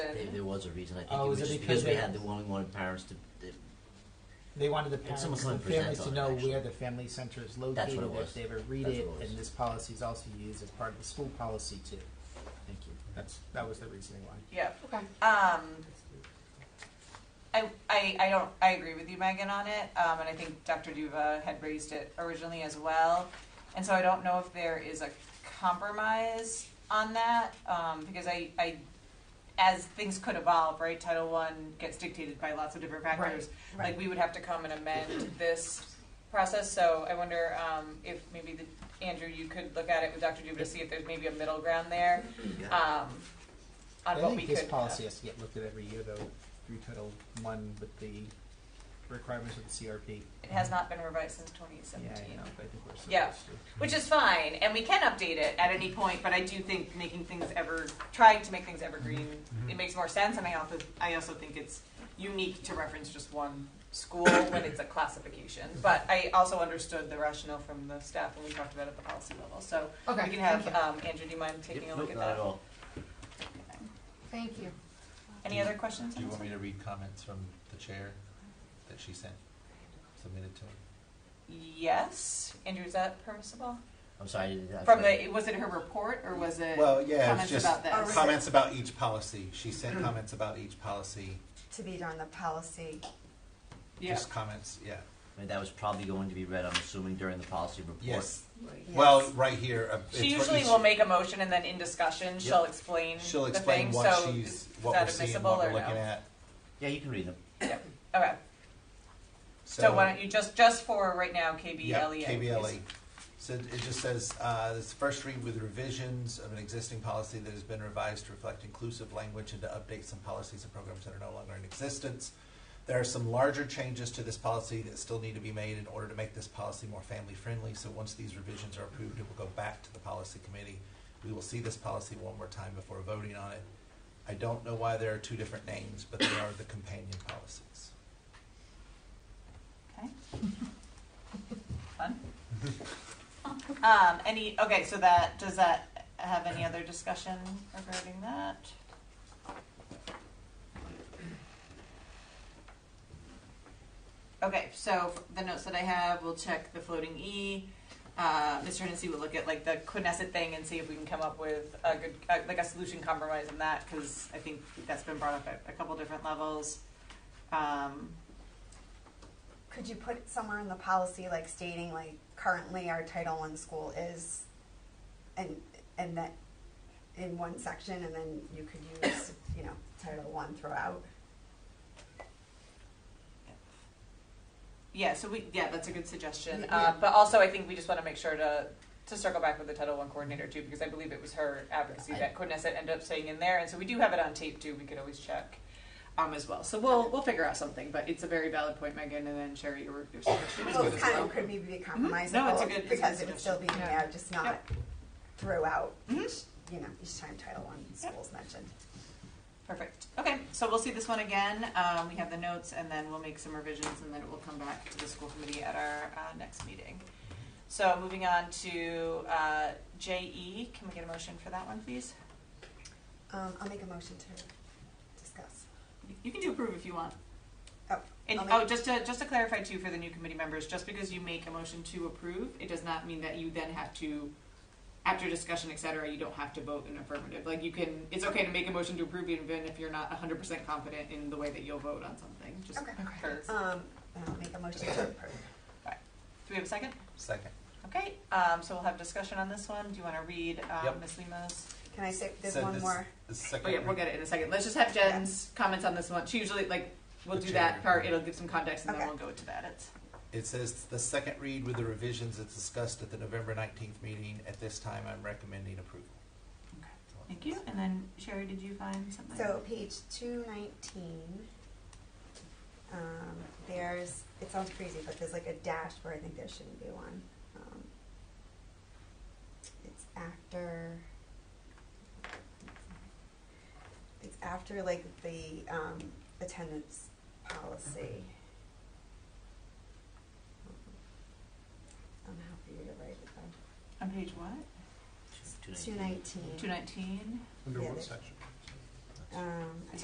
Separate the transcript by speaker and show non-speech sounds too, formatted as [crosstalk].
Speaker 1: was a reason, I think
Speaker 2: Oh,
Speaker 1: it was
Speaker 2: is it
Speaker 1: just
Speaker 2: because
Speaker 1: because we
Speaker 2: they-
Speaker 1: had the one, we wanted parents to, they-
Speaker 2: They wanted the
Speaker 1: It's
Speaker 2: parents
Speaker 1: almost
Speaker 2: and
Speaker 1: like
Speaker 2: the families
Speaker 1: present
Speaker 2: to
Speaker 1: on it,
Speaker 2: know
Speaker 1: actually.
Speaker 2: where the family center is
Speaker 1: what it
Speaker 2: located,
Speaker 1: was.
Speaker 2: if they ever read
Speaker 1: That's
Speaker 2: it,
Speaker 1: what it was.
Speaker 2: and this policy is also used as part of the school policy too. Thank you. That's, that was the reasoning why.
Speaker 3: Yeah.
Speaker 4: Okay.
Speaker 3: Um, I, I, I don't, I agree with you, Megan, on it, um, and I think Dr. Duva had raised it originally as well. And so I don't know if there is a compromise on that, um, because I, I, as things could evolve, right, Title One gets dictated by lots of different factors.
Speaker 4: Right.
Speaker 3: Like, we would have to come and amend this process, so I wonder, um, if maybe the, Andrew, you could look at it with Dr. Duva to see if there's maybe a middle ground there,
Speaker 1: yeah,
Speaker 3: um, on
Speaker 2: I
Speaker 3: what we
Speaker 2: think
Speaker 3: could.
Speaker 2: this policy has to get looked at every year though, through Title One with the requirements of the CRP.
Speaker 3: It has not been revised since
Speaker 2: Yeah,
Speaker 3: 2017,
Speaker 2: I know, but I think we're supposed
Speaker 3: Yeah.
Speaker 2: to.
Speaker 3: which is fine, and we can update it at any point. But I do think making things ever, trying to make things evergreen,
Speaker 2: Mm-hmm.
Speaker 3: it makes more sense. And I also, I also think it's unique to reference just one
Speaker 2: [coughs]
Speaker 3: school when it's a classification. But I also understood the rationale from the staff when we talked about it at the policy level. So
Speaker 4: Okay.
Speaker 3: we can have
Speaker 4: Thank you.
Speaker 3: um, Andrew. Do you mind taking
Speaker 1: Yep,
Speaker 3: a
Speaker 1: no,
Speaker 3: look at
Speaker 1: not
Speaker 3: that?
Speaker 1: at all.
Speaker 4: Thank you.
Speaker 3: Any other questions?
Speaker 5: Do you want me to read comments from the chair that she sent, submitted to him?
Speaker 3: Yes, Andrew. Is that permissible?
Speaker 1: I'm sorry, I didn't- I
Speaker 3: From
Speaker 1: thought-
Speaker 3: the was it her report or was it
Speaker 5: Well, yeah, it's
Speaker 3: comments
Speaker 5: just
Speaker 3: about this?
Speaker 5: comments about each policy. She sent comments about each policy,
Speaker 6: to be on the policy.
Speaker 3: Yeah.
Speaker 5: just comments, yeah.
Speaker 1: I mean, that was probably going to be read, I'm assuming, during the policy report.
Speaker 5: Yes,
Speaker 6: Yes.
Speaker 5: well, right here. uh,
Speaker 3: She
Speaker 5: it's for
Speaker 3: usually
Speaker 5: each-
Speaker 3: will make a motion and then in discussion, she'll explain
Speaker 5: She'll
Speaker 3: the
Speaker 5: explain
Speaker 3: thing,
Speaker 5: what
Speaker 3: so
Speaker 5: she's,
Speaker 3: is
Speaker 5: what we're
Speaker 3: that
Speaker 5: seeing,
Speaker 3: admissible
Speaker 5: what
Speaker 3: or
Speaker 5: we're
Speaker 3: no?
Speaker 5: looking at.
Speaker 1: Yeah, you can read them.
Speaker 3: Okay, so why don't you, just, just for right now,
Speaker 5: Yep,
Speaker 3: KBLEA.
Speaker 5: KBLE. So it just says, uh, this first read with revisions of an existing policy that has been revised to reflect inclusive language and to update some policies and programs that are no longer in existence. There are some larger changes to this policy that still need to be made in order to make this policy more family-friendly. So once these revisions are approved, it will go back to the policy committee. We will see this policy one more time before voting on it. I don't know why there are two different names, but they are the companion policies.
Speaker 3: Okay. [laughs] Fun. Um, any, okay, so that, does that have any other discussion regarding that? Okay, so the notes that I have, we'll check the floating E. Uh, Mr. Hennessy will look at like the Quineset thing and see if we can come up with a good, uh, like a solution compromise on that, because I think that's been brought up at a couple different levels. Um,
Speaker 6: Could you put it somewhere in the policy, like stating, like, currently our Title One school is, and, and that, in one section, and then you could use, you know, Title One throughout?
Speaker 3: Yeah, so we, yeah, that's a good suggestion.
Speaker 6: Yeah.
Speaker 3: Uh, but also, I think we just want to make sure to, to circle back with the Title One coordinator too, because I believe it was her advocacy
Speaker 1: I-
Speaker 3: that Knesset ended up saying in there, and so we do have it on tape too. We could always check, um, as well. So we'll we'll figure out something. But it's a very valid point, Megan, and then Sherry, your your suggestion as
Speaker 6: Well, it kind
Speaker 3: well.
Speaker 6: of could be be
Speaker 3: Mhm. No, it's a good-
Speaker 6: compromisable,
Speaker 3: it's a
Speaker 6: because
Speaker 3: good
Speaker 6: it would still be
Speaker 4: suggestion.
Speaker 6: there, just not
Speaker 3: Yep.
Speaker 6: throughout,
Speaker 3: Mhm.
Speaker 6: each, you know, each time Title One school's mentioned.
Speaker 3: Perfect. Okay, so we'll see this one again. Um, we have the notes, and then we'll make some revisions, and then it will come back to the school committee at our uh, next meeting. So moving on to uh, JE, can we get a motion for that one, please?
Speaker 6: Um, I'll make a motion to discuss.
Speaker 3: You can do approve if you want.
Speaker 6: Oh,
Speaker 3: And,
Speaker 6: I'll make-
Speaker 3: oh, just to, just to clarify too, for the new committee members, just because you make a motion to approve, it does not mean that you then have to, after discussion, et cetera, you don't have to vote in affirmative. Like, you can, it's okay to make a motion to approve even if you're not hundred percent confident in the way that you'll vote on something, just
Speaker 6: Okay.
Speaker 3: for-
Speaker 6: Um, and I'll make a motion to approve.
Speaker 3: Do we have a second?
Speaker 5: Second.
Speaker 3: Okay, um, so we'll have discussion on this one. Do you wanna read, um,
Speaker 5: Yep.
Speaker 3: Ms. Lima's?
Speaker 6: Can I say, there's
Speaker 5: So
Speaker 6: one
Speaker 5: this-
Speaker 6: more?
Speaker 5: this
Speaker 3: Oh,
Speaker 5: second
Speaker 3: yeah, we'll
Speaker 5: read-
Speaker 3: get it in a second. Let's just have Jen's comments on this one. She usually, like, we'll do that part, it'll give some context, and then
Speaker 6: Okay.
Speaker 3: we'll go to that. It's,
Speaker 5: It says the second read with the revisions that's discussed at the November nineteenth meeting. At this time, I'm recommending approval.
Speaker 3: thank you. And then Sherry, did you find something?
Speaker 6: So page two nineteen, um, there's, it sounds crazy, but there's like a dash where I think there shouldn't be one. Um, It's after. It's after like the, um, attendance policy. Um, I'm happy to write it down.
Speaker 3: On page what?
Speaker 1: Two
Speaker 6: Two
Speaker 1: nineteen.
Speaker 6: nineteen.
Speaker 3: Two nineteen?
Speaker 6: Under what section? Um, I